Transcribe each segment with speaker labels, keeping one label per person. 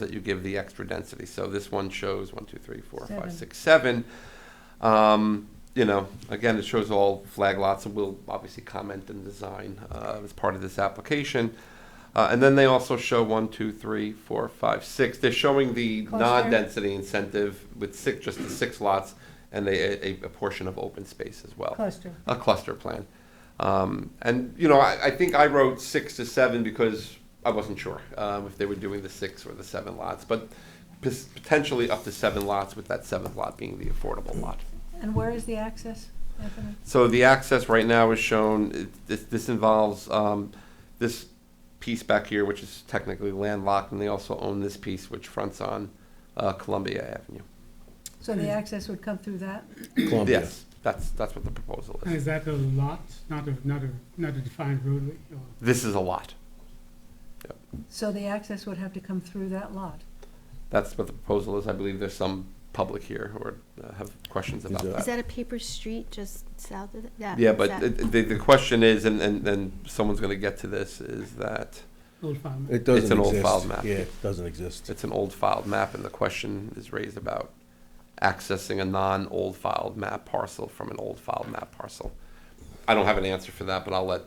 Speaker 1: that you give the extra density. So this one shows one, two, three, four, five,
Speaker 2: Seven.
Speaker 1: six, seven. Um, you know, again, it shows all flag lots, and we'll obviously comment and design uh, as part of this application. Uh, and then they also show one, two, three, four, five, six. They're showing the
Speaker 2: Cluster.
Speaker 1: non-density incentive with six, just the six lots, and they, a, a portion of open space as well
Speaker 2: cluster.
Speaker 1: a cluster plan. Um, and, you know, I, I think I wrote six to seven because I wasn't sure um, if they were doing the six or the seven lots, but pos- potentially up to seven lots, with that seventh lot being the affordable lot.
Speaker 2: And where is the access, Anthony?
Speaker 1: So the access right now is shown, it- this, this involves um, this piece back here, which is technically landlocked, and they also own this piece, which fronts on uh, Columbia Avenue.
Speaker 2: So the access would come through that?
Speaker 3: Columbia.
Speaker 1: Yes, that's, that's what the proposal
Speaker 4: And
Speaker 1: is.
Speaker 4: is that a lot, not a, not a, not a defined roadway? or-
Speaker 1: This is a lot.
Speaker 2: So the access would have to come through that lot?
Speaker 1: That's what the proposal is. I believe there's some public here who are, uh, have questions about
Speaker 3: that-
Speaker 1: that.
Speaker 5: Is that a paper street just south of that?
Speaker 1: Yeah,
Speaker 5: is
Speaker 1: but
Speaker 5: that-
Speaker 1: it- the, the question is, and, and, and someone's gonna get to this, is that
Speaker 4: Old farm.
Speaker 3: It doesn't
Speaker 1: It's
Speaker 3: exist.
Speaker 1: an old file map.
Speaker 3: Yeah, it doesn't exist.
Speaker 1: it's an old filed map and the question is raised about accessing a non-old filed map parcel from an old filed map parcel. I don't have an answer for that, but I'll let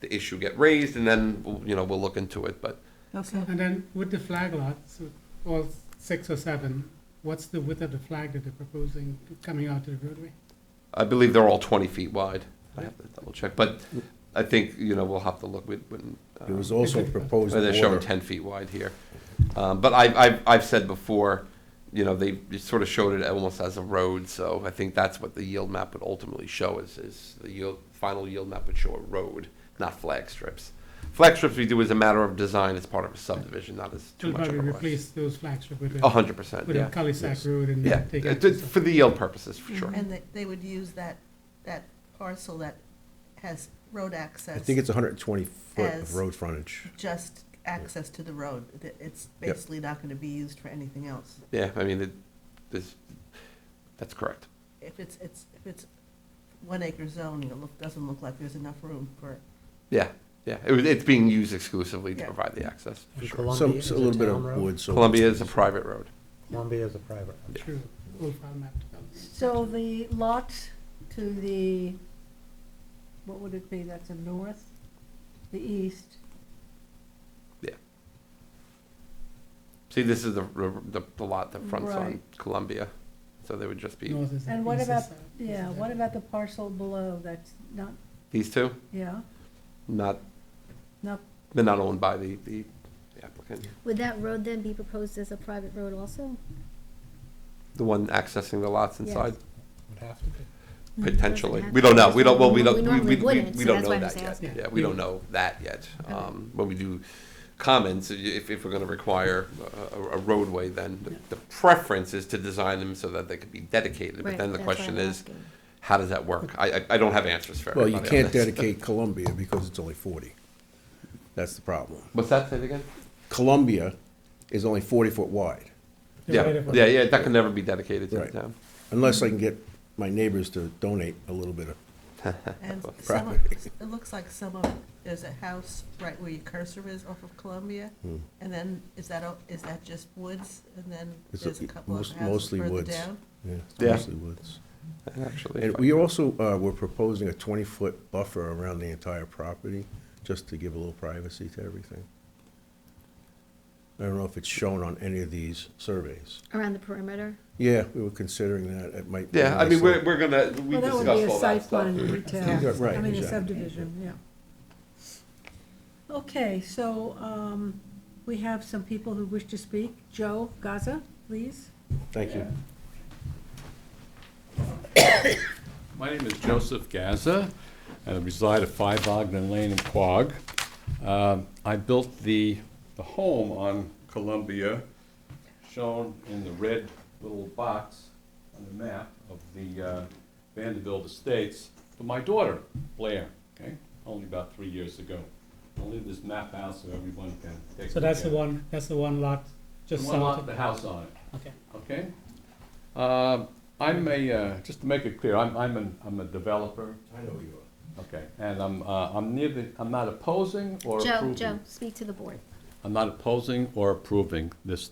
Speaker 1: the issue get raised and then, we'll- you know, we'll look into it, but
Speaker 2: Okay.
Speaker 4: And then with the flag lots, all six or seven, what's the width of the flag that they're proposing coming out to the roadway?
Speaker 1: I believe they're all twenty feet wide. I have to double check, but I think, you know, we'll have to look, we, when. uh,
Speaker 3: It was also a proposed
Speaker 1: Or they're showing
Speaker 3: border.
Speaker 1: ten feet wide here. Um, but I, I've, I've said before, you know, they sort of showed it almost as a road, so I think that's what the yield map would ultimately show is, is the yield, final yield map would show a road, not flag strips. Flag strips we do as a matter of design, as part of a subdivision, not as too
Speaker 4: They'll
Speaker 1: much of
Speaker 4: probably
Speaker 1: a request.
Speaker 4: replace those flags with
Speaker 1: A
Speaker 4: a,
Speaker 1: hundred percent,
Speaker 4: with a
Speaker 1: yeah,
Speaker 4: cul-de-sac
Speaker 3: Yes.
Speaker 4: road and
Speaker 1: yeah,
Speaker 4: take Mm-hmm.
Speaker 1: Uh, to-
Speaker 4: access.
Speaker 1: for the yield purposes, for sure.
Speaker 6: And they, they would use that, that parcel that has road access.
Speaker 3: I think it's hundred and twenty foot of
Speaker 6: As-
Speaker 3: road frontage.
Speaker 6: Just access to the road. Th- It's
Speaker 3: Yep.
Speaker 6: basically not gonna be used for anything else.
Speaker 1: Yeah, I mean, it, this, that's correct.
Speaker 6: If it's, it's, if it's one acre zoning, it look, doesn't look like there's enough room for,
Speaker 1: Yeah, yeah, it, was- it's being used exclusively to
Speaker 6: Yeah.
Speaker 1: provide the access, for
Speaker 7: And
Speaker 1: sure.
Speaker 3: Some,
Speaker 7: Columbia is
Speaker 3: a little bit
Speaker 7: town
Speaker 3: of
Speaker 7: road.
Speaker 3: wood, so.
Speaker 1: Columbia is a private road.
Speaker 7: Columbia is a private road.
Speaker 4: True, old farm map development.
Speaker 2: So the lot to the, what would it be, that's the north, the east?
Speaker 1: See, this is the, the, the lot that fronts on
Speaker 2: Right.
Speaker 1: Columbia, so they would just be,
Speaker 4: North is
Speaker 2: And
Speaker 4: that,
Speaker 2: what
Speaker 4: east is
Speaker 2: about-
Speaker 4: south, east
Speaker 2: Yeah,
Speaker 4: is
Speaker 2: what
Speaker 4: that.
Speaker 2: about the parcel below that's not,
Speaker 1: these two,
Speaker 2: yeah,
Speaker 1: not,
Speaker 2: not,
Speaker 1: they're not owned by the, the applicant.
Speaker 5: Would that road then be proposed as a private road also?
Speaker 1: The one accessing the lots inside,
Speaker 7: Would have to be.
Speaker 1: potentially.
Speaker 5: Mm-hmm. Doesn't
Speaker 1: We don't know,
Speaker 5: have to.
Speaker 1: we don't, well, we don't, we,
Speaker 5: normally
Speaker 1: we, we
Speaker 5: wouldn't,
Speaker 1: we
Speaker 5: so
Speaker 1: don't
Speaker 5: that's
Speaker 1: know
Speaker 5: why I'm just
Speaker 1: that yet.
Speaker 5: asking.
Speaker 1: Yeah, we don't know that yet. Um, when we do comments, if, if we're gonna require a, a- a roadway, then the-
Speaker 4: Yeah.
Speaker 1: the preference is to design them so that they could be dedicated. But
Speaker 5: Right,
Speaker 1: then the
Speaker 5: that's why
Speaker 1: question
Speaker 5: I'm
Speaker 1: is,
Speaker 5: asking.
Speaker 1: how does that work? I, I, I don't have answers for
Speaker 3: Well,
Speaker 1: everybody
Speaker 3: you
Speaker 1: on
Speaker 3: can't
Speaker 1: this.
Speaker 3: dedicate Columbia because it's only forty. That's the problem.
Speaker 1: What's that, say it again?
Speaker 3: Columbia is only forty foot wide,
Speaker 4: The right
Speaker 1: Yeah,
Speaker 4: of way.
Speaker 1: yeah, yeah, that can never be dedicated to the
Speaker 3: Right.
Speaker 1: town.
Speaker 3: unless I can get my neighbors to donate a little bit of,
Speaker 6: and
Speaker 1: Well,
Speaker 6: some of,
Speaker 3: property.
Speaker 6: it looks like some of, there's a house right where your cursor is off of Columbia.
Speaker 3: Hmm.
Speaker 6: And then, is that, o- is that just woods? And then
Speaker 3: It's
Speaker 6: there's
Speaker 3: a-
Speaker 6: a couple of
Speaker 3: most-
Speaker 6: houses
Speaker 3: mostly
Speaker 6: further
Speaker 3: woods.
Speaker 6: down?
Speaker 3: yeah, it's
Speaker 1: Yeah.
Speaker 3: mostly woods.
Speaker 1: Actually,
Speaker 3: And
Speaker 1: if I-
Speaker 3: we also, uh, were proposing a twenty foot buffer around the entire property, just to give a little privacy to everything. I don't know if it's shown on any of these surveys.
Speaker 5: Around the perimeter?
Speaker 3: Yeah, we were considering that, it might. be
Speaker 1: yeah, I mean,
Speaker 3: nice.
Speaker 1: we're, we're gonna, we
Speaker 2: well, that
Speaker 1: discussed
Speaker 2: would be a
Speaker 1: all that
Speaker 2: site
Speaker 1: stuff.
Speaker 2: plan
Speaker 3: Yeah,
Speaker 2: detail.
Speaker 3: right,
Speaker 2: I mean, a
Speaker 3: exactly.
Speaker 2: subdivision, yeah. Okay, so, um, we have some people who wish to speak. Joe Gaza, please.
Speaker 3: Thank you.
Speaker 8: My name is Joseph Gaza, and I reside at 5 Ogden Lane in Quogue. Um, I built the, the home on Columbia, shown in the red little box on the map of the uh, Vanderbilt Estates, for my daughter, Blair, okay? Only about three years ago. I'll leave this map out so everyone can take a look
Speaker 4: So that's the
Speaker 8: at it.
Speaker 4: one, that's the one lot, just
Speaker 8: The one
Speaker 4: south
Speaker 8: lot,
Speaker 4: of,
Speaker 8: the house on it.
Speaker 4: okay.
Speaker 8: Okay. Um, I'm a, uh, just to make it clear, I'm, I'm an, I'm a developer.
Speaker 3: I know you are.
Speaker 8: Okay, and I'm, uh, I'm neither, I'm not opposing or
Speaker 5: Joe,
Speaker 8: approving.
Speaker 5: Joe, speak to the board.
Speaker 8: I'm not opposing or approving this